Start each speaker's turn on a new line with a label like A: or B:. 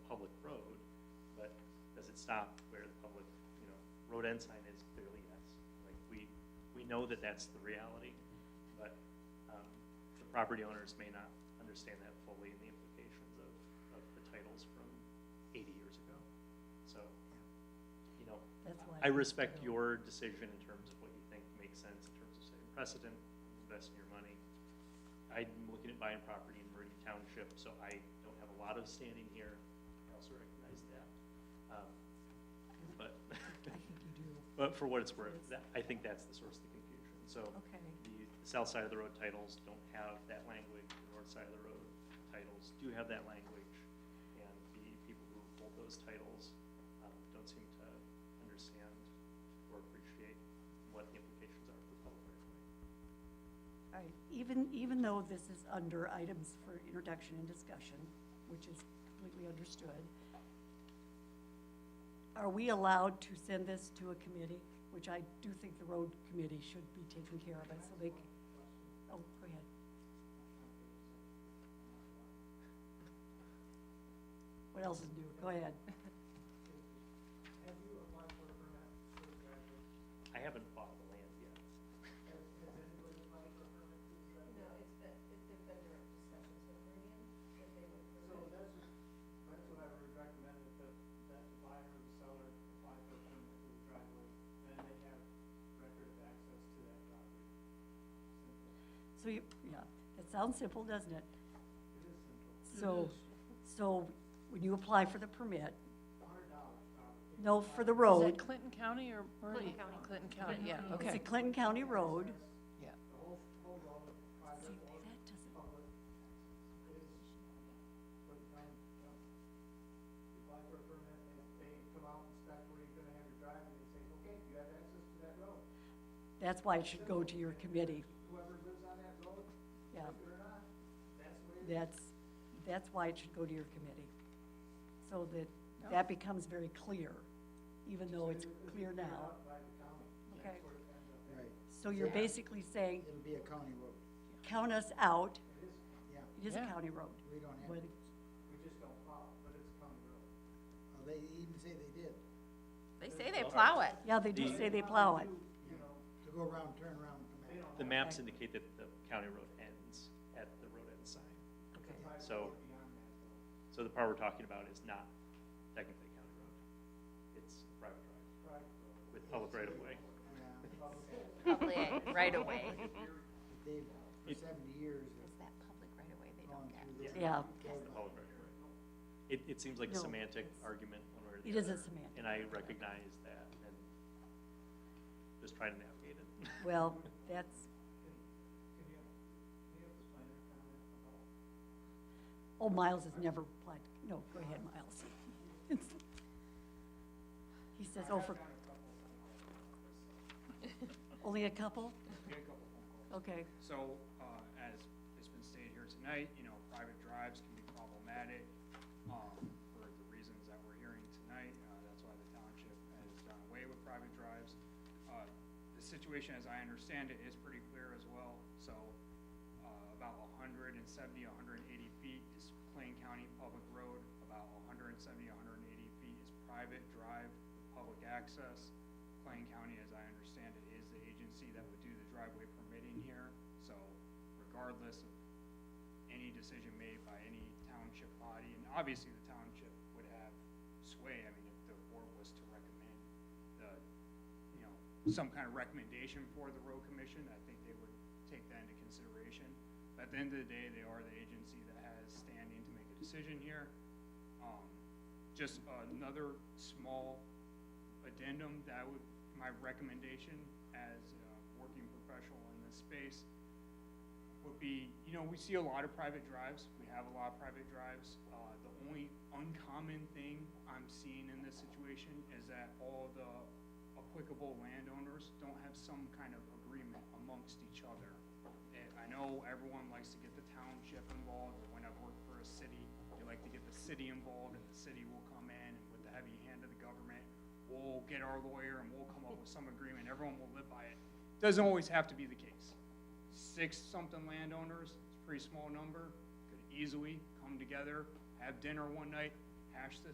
A: stop where the public, you know, road end sign is clearly yes. Like, we, we know that that's the reality, but, um, the property owners may not understand that fully and the implications of, of the titles from eighty years ago. So, you know,
B: That's why.
A: I respect your decision in terms of what you think makes sense in terms of setting precedent, investing your money. I'm looking at buying property in Meridian Township, so I don't have a lot of standing here. I also recognize that. Um, But,
B: I think you do,
A: but for what it's worth, that- I think that's the source of the confusion. So
B: okay.
A: the south side of the road titles don't have that language, the north side of the road titles do have that language. And the people who hold those titles, um, don't seem to understand or appreciate what the implications are for public right of way.
B: All right, even, even though this is under items for introduction and discussion, which is completely understood, are we allowed to send this to a committee, which I do think the road committee should be taking care of it, so they, c- oh, go ahead. What else is new? Go ahead.
C: Have you applied for a permit for the driveway?
A: I haven't bought the land yet.
C: Has, has anybody applied for a permit for the driveway?
D: No, it's been, it's been direct discussions with Meridian, that they would
C: So
D: permit.
C: that's, that's what I would recommend, that, the- that the buyer and the seller apply for a permit for the driveway, then they have record of access to that property. Simple.
B: So you, yeah, that sounds simple, doesn't it?
C: It is simple.
B: So, so when you apply for the permit,
C: A hundred dollars probably.
B: no, for the
E: Is
B: road,
E: that Clinton County or Meridian? Clinton County. yeah,
B: it's a
E: okay.
B: Clinton County road.
E: Yeah.
C: The whole, whole road, private or public, is for the town, no. You apply for a permit, and if they come out and inspect where you're gonna have your driveway, they say, okay, you have access to that road.
B: That's why it should go to your committee,
C: whoever lives on that road,
B: yeah.
C: like it or not, that's the way it is.
B: That's, that's why it should go to your committee. So that, that becomes very clear, even though it's clear
C: Cleared
B: now.
C: out by the county.
B: Okay.
C: That's where it ends up.
F: Right,
B: So you're
F: Yeah.
B: basically saying,
F: it'll be a county road,
B: count us out,
C: It is,
F: yeah,
B: it is a
E: Yeah.
B: county road.
F: we don't have,
B: When-
F: to-
C: we just don't follow, but it's a county road.
F: oh, they even say they did,
G: They say they plow it.
B: Yeah, they do say they plow it.
C: You know,
F: to go around, turn around, and
C: they
F: come
C: don't
A: The
C: have
A: maps indicate that the county road ends at the road end sign.
B: Okay,
C: five feet
A: so-
C: beyond that though.
A: So the part we're talking about is not technically county road. It's private drive
C: Private road.
A: with public right of way.
F: back. Yeah,
G: Public right away.
F: They've,
A: It-
F: for seventy years,
G: Is
F: have
G: that public right away they don't
F: gone
G: get?
F: through this.
B: Yeah.
A: It's the public right of way. It, it seems like a
B: No.
A: semantic argument one way or the
B: It
A: other.
B: is a semantic
A: And I recognize that and just try to navigate it.
B: well, that's,
C: Can you, can you have the planner comment about
B: oh, Miles has never applied, no, go ahead, Miles. He says, oh, for, only a couple?
H: Get a couple phone calls.
B: Okay,
H: So, uh, as has been stated here tonight, you know, private drives can be problematic, um, for the reasons that we're hearing tonight. Uh, that's why the township has done away with private drives. Uh, the situation, as I understand it, is pretty clear as well. So, uh, about hundred and seventy, hundred and eighty feet is Plain County Public Road. About hundred and seventy, hundred and eighty feet is private drive, public access. Plain County, as I understand it, is the agency that would do the driveway permitting here, so regardless of any decision made by any township body, and obviously the township would have sway, I mean, if the board was to recommend the, you know, some kind of recommendation for the road commission, I think they would take that into consideration. But at the end of the day, they are the agency that has standing to make a decision here. Um, just another small addendum, that would, my recommendation as a working professional in this space would be, you know, we see a lot of private drives, we have a lot of private drives. Uh, the only uncommon thing I'm seeing in this situation is that all the applicable landowners don't have some kind of agreement amongst each other. And I know everyone likes to get the township involved, or when I've worked for a city, they like to get the city involved, and the city will come in and with the heavy hand of the government, we'll get our lawyer and we'll come up with some agreement, everyone will live by it. Doesn't always have to be the case six something landowners, it's a pretty small number, could easily come together, have dinner one night, hash this